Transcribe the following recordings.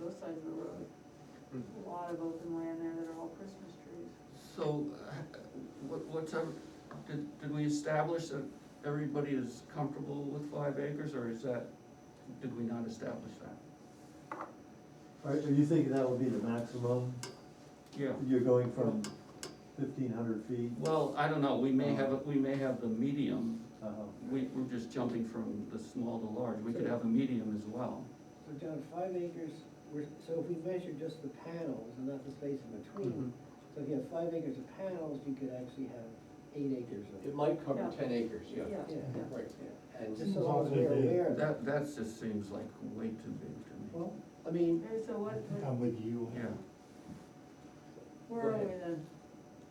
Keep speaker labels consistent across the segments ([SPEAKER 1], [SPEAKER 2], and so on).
[SPEAKER 1] both sides of the road. A lot of open land there that are all Christmas trees.
[SPEAKER 2] So, uh, what, what's, our- did, did we establish that everybody is comfortable with five acres, or is that, did we not establish that?
[SPEAKER 3] Are, are you thinking that would be the maximum?
[SPEAKER 2] Yeah,
[SPEAKER 3] You're going from fifteen hundred feet?
[SPEAKER 2] well, I don't know, we may have, a- we may have the medium,
[SPEAKER 3] Uh-huh.
[SPEAKER 2] we, we're just jumping from the small to large, we could have a medium as well.
[SPEAKER 4] So John, five acres, we're, so if we measure just the panels and not the space in
[SPEAKER 5] Mm-hmm.
[SPEAKER 4] between, so if you have five acres of panels, you could actually have eight acres
[SPEAKER 6] It
[SPEAKER 4] of.
[SPEAKER 6] might cover
[SPEAKER 1] Yeah.
[SPEAKER 6] ten acres, yeah.
[SPEAKER 1] Yeah,
[SPEAKER 4] Yeah.
[SPEAKER 1] yeah.
[SPEAKER 6] Right,
[SPEAKER 4] Yeah.
[SPEAKER 6] and
[SPEAKER 4] Just so long as we're
[SPEAKER 5] Positive.
[SPEAKER 4] aware of that.
[SPEAKER 2] That, that just seems like way too big to me.
[SPEAKER 4] Well, I mean,
[SPEAKER 1] Okay, so what, what-
[SPEAKER 5] I'm with you.
[SPEAKER 2] Yeah,
[SPEAKER 1] where are
[SPEAKER 4] Go
[SPEAKER 1] we
[SPEAKER 4] ahead.
[SPEAKER 1] then?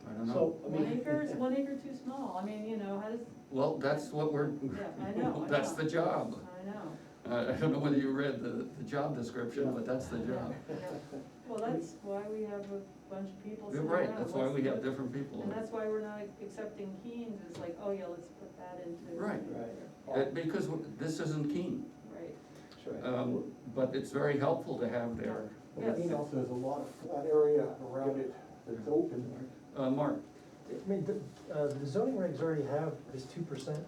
[SPEAKER 2] I don't know.
[SPEAKER 4] so, I mean.
[SPEAKER 1] One acre, is one acre too small? I mean, you know, how does,
[SPEAKER 2] Well, that's what we're,
[SPEAKER 1] yeah, I know, I
[SPEAKER 2] that's
[SPEAKER 1] know.
[SPEAKER 2] the job.
[SPEAKER 1] I know.
[SPEAKER 2] Uh, I don't know whether you read the, the job description, but that's the job.
[SPEAKER 1] Well, that's why we have a bunch of people
[SPEAKER 2] You're
[SPEAKER 1] sitting around.
[SPEAKER 2] right, that's why we have
[SPEAKER 1] What's-
[SPEAKER 2] different people.
[SPEAKER 1] And that's why we're not accepting Keens, it's like, oh yeah, let's put that into.
[SPEAKER 2] Right.
[SPEAKER 4] Right.
[SPEAKER 2] Uh, Because w- this isn't Keene,
[SPEAKER 1] Right,
[SPEAKER 4] Sure.
[SPEAKER 2] um, but it's very helpful to have there.
[SPEAKER 1] yes.
[SPEAKER 7] You know, there's a lot of flat area around it that's open.
[SPEAKER 2] Uh, Mark,
[SPEAKER 5] I mean, the, uh, the zoning regs already have this two percent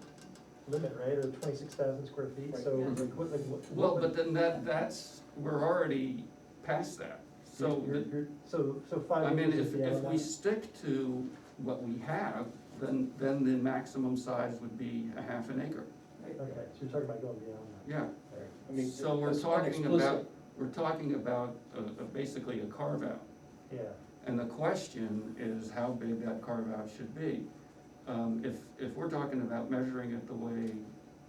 [SPEAKER 5] limit, right, or twenty-six thousand square feet, so
[SPEAKER 1] Right.
[SPEAKER 5] like, what, like, what?
[SPEAKER 2] well,
[SPEAKER 5] what-
[SPEAKER 2] but then that, that's, we're already past that. So,
[SPEAKER 5] you're-
[SPEAKER 2] the-
[SPEAKER 5] you're- So, so
[SPEAKER 2] I
[SPEAKER 5] five
[SPEAKER 2] mean,
[SPEAKER 5] acres
[SPEAKER 2] if,
[SPEAKER 5] is the
[SPEAKER 2] if we
[SPEAKER 5] amount.
[SPEAKER 2] stick to what we have, then, then the maximum size would be a half an acre,
[SPEAKER 5] Okay, so you're talking about going beyond that.
[SPEAKER 2] yeah.
[SPEAKER 5] Alright.
[SPEAKER 4] I mean,
[SPEAKER 2] So we're
[SPEAKER 4] that's
[SPEAKER 2] talking
[SPEAKER 4] explicit.
[SPEAKER 2] about, we're talking about, uh, uh, basically a carve out.
[SPEAKER 5] Yeah,
[SPEAKER 2] And the question is how big that carve-out should be. Um, if, if we're talking about measuring it the way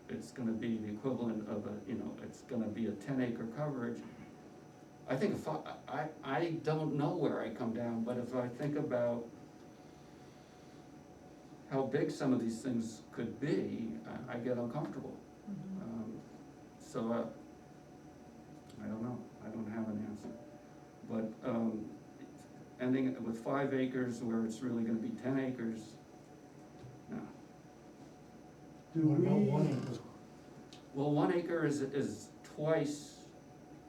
[SPEAKER 2] it's gonna be the equivalent of a, you know, it's gonna be a ten acre coverage, I think if I, I, I don't know where I come down, but if I think about how big some of these things could be, I, I get uncomfortable.
[SPEAKER 1] Mhm.
[SPEAKER 2] Um, So, uh, I don't know, I don't have an answer. But, um, ending it with five acres where it's really gonna be ten acres, no.
[SPEAKER 3] Do
[SPEAKER 5] What about
[SPEAKER 3] we,
[SPEAKER 5] one acre?
[SPEAKER 2] Well, one acre is, is twice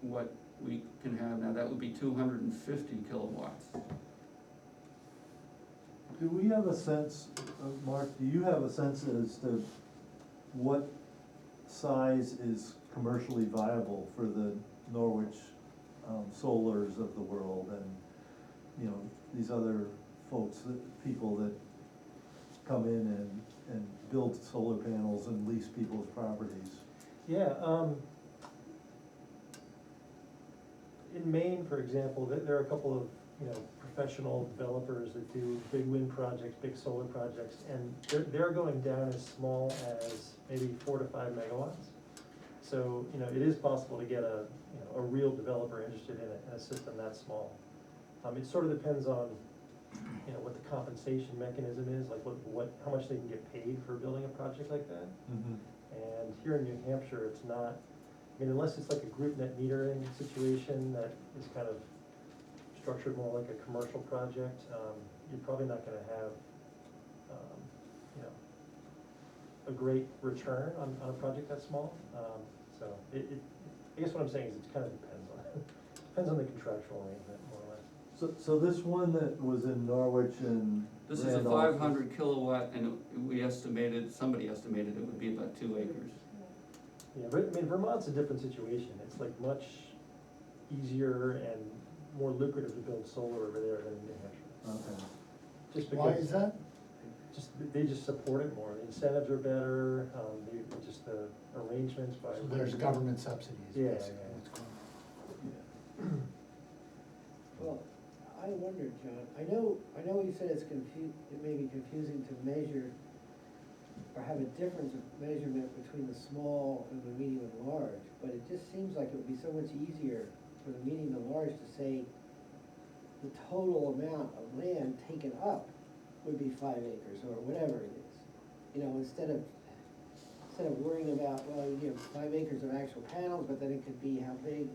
[SPEAKER 2] what we can have now, that would be two hundred and fifty kilowatts.
[SPEAKER 3] do we have a sense, uh, Mark, do you have a sense as to what size is commercially viable for the Norwich, um, solars of the world and, you know, these other folks, that, people that come in and, and build solar panels and lease people's properties?
[SPEAKER 5] Yeah, um. In Maine, for example, there, there are a couple of, you know, professional developers that do big wind projects, big solar projects, and they're, they're going down as small as maybe four to five megawatts. So, you know, it is possible to get a, you know, a real developer interested in a, in a system that small. Um, it sort of depends on, you know, what the compensation mechanism is, like what, what, how much they can get paid for building a project like that.
[SPEAKER 3] Mm-hmm.
[SPEAKER 5] And here in New Hampshire, it's not, I mean, unless it's like a group net metering situation that is kind of structured more like a commercial project, um, you're probably not gonna have, um, you know, a great return on, on a project that small, um, so it, it, I guess what I'm saying is it kind of depends on, depends on the contractual arrangement more or less.
[SPEAKER 3] So, so this one that was in Norwich and.
[SPEAKER 2] This is a
[SPEAKER 3] Randolph
[SPEAKER 2] five hundred kilowatt, and we estimated, somebody estimated it would be about two acres.
[SPEAKER 5] Yeah, but I mean, Vermont's a different situation, it's like much easier and more lucrative to build solar over there than New Hampshire.
[SPEAKER 3] Okay.
[SPEAKER 5] Just
[SPEAKER 4] Why
[SPEAKER 5] because-
[SPEAKER 4] is that?
[SPEAKER 5] Just, they just support it more, the incentives are better, um, they, just the arrangements by.
[SPEAKER 8] So there's government subsidies,
[SPEAKER 5] Yeah, yeah,
[SPEAKER 8] basically,
[SPEAKER 5] yeah.
[SPEAKER 8] what's going on.
[SPEAKER 4] Well, I wondered, John, I know, I know you said it's confu, it may be confusing to measure or have a difference of measurement between the small and the medium and large, but it just seems like it would be so much easier for the medium and large to say the total amount of land taken up would be five acres or whatever it is. You know, instead of, instead of worrying about, well, you know, five acres of actual panels, but then it could be how big.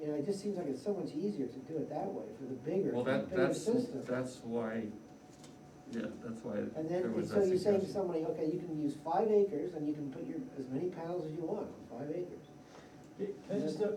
[SPEAKER 4] You know, it just seems like it's so much easier to do it that way for the bigger,
[SPEAKER 2] Well, that,
[SPEAKER 4] bigger
[SPEAKER 2] that's,
[SPEAKER 4] system.
[SPEAKER 2] that's why, yeah, that's why
[SPEAKER 4] And
[SPEAKER 2] there
[SPEAKER 4] then, and
[SPEAKER 2] was
[SPEAKER 4] so
[SPEAKER 2] that
[SPEAKER 4] you say to
[SPEAKER 2] suggestion.
[SPEAKER 4] somebody, okay, you can use five acres and you can put your, as many panels as you want on five acres.
[SPEAKER 5] Can I just uh, note,